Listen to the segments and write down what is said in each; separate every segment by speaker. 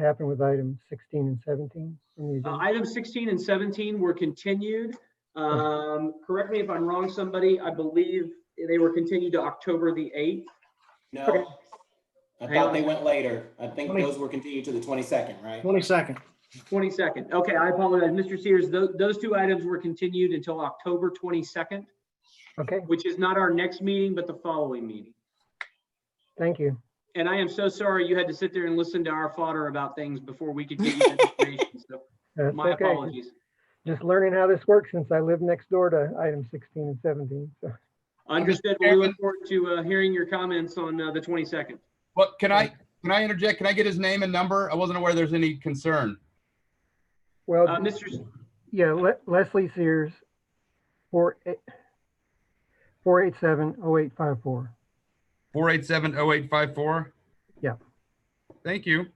Speaker 1: happened with item 16 and 17 on the
Speaker 2: Uh,
Speaker 1: agenda?
Speaker 2: Item 16 and 17 were continued. Um, Correct me if I'm wrong, somebody, I believe they were continued to October the 8th.
Speaker 3: No. I
Speaker 2: Hang
Speaker 3: thought
Speaker 2: on.
Speaker 3: they went later. I think
Speaker 4: Twenty-
Speaker 3: those were continued to the 22nd, right?
Speaker 4: Twenty-second.
Speaker 2: 22nd. Okay, I apologize. Mr. Sears, tho- those two items were continued until October 22nd,
Speaker 1: Okay,
Speaker 2: which is not our next meeting, but the following meeting.
Speaker 1: thank you.
Speaker 2: And I am so sorry you had to sit there and listen to our fodder about things before we could give you that information. So
Speaker 1: That's
Speaker 2: my
Speaker 1: Uh, okay.
Speaker 2: apologies.
Speaker 1: Just learning how this works since I live next door to item 16 and 17. So
Speaker 2: Understood. We look forward to uh, hearing your comments on uh, the 22nd.
Speaker 5: But can I, can I interject? Can I get his name and number? I wasn't aware there's any concern.
Speaker 1: Well,
Speaker 2: Uh, Mr. S-
Speaker 1: yeah, Le- Leslie Sears, 487-0854.
Speaker 5: Four eight seven oh eight five four?
Speaker 1: Yeah.
Speaker 5: Thank you.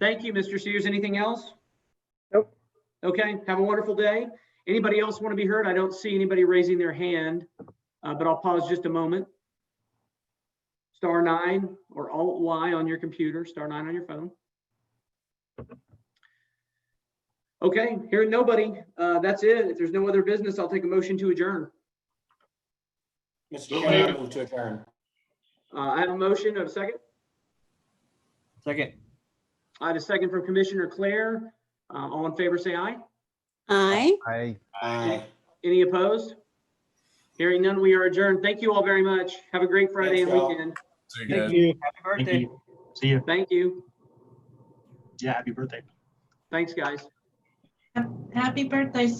Speaker 2: Thank you, Mr. Sears. Anything else?
Speaker 1: Nope.
Speaker 2: Okay, have a wonderful day. Anybody else want to be heard? I don't see anybody raising their hand, uh, but I'll pause just a moment. Star nine or Alt Y on your computer, star nine on your phone. Okay, hearing nobody, uh, that's it. If there's no other business, I'll take a motion to adjourn.
Speaker 3: Mr. Chairman, I move to adjourn.
Speaker 2: Uh, I have a motion of a second.
Speaker 4: Second.
Speaker 2: I have a second from Commissioner Claire. Uh, all in favor, say aye.
Speaker 6: Aye.
Speaker 7: Aye.
Speaker 3: Aye.
Speaker 2: Any opposed? Hearing none, we are adjourned. Thank you all very much. Have a great Friday and
Speaker 3: Thanks, y'all.
Speaker 2: weekend.
Speaker 4: Thank you.
Speaker 2: Happy
Speaker 8: Thank
Speaker 2: birthday.
Speaker 8: you. See you.
Speaker 2: Thank you.
Speaker 8: Yeah, happy birthday.
Speaker 2: Thanks, guys.
Speaker 9: Happy birthday,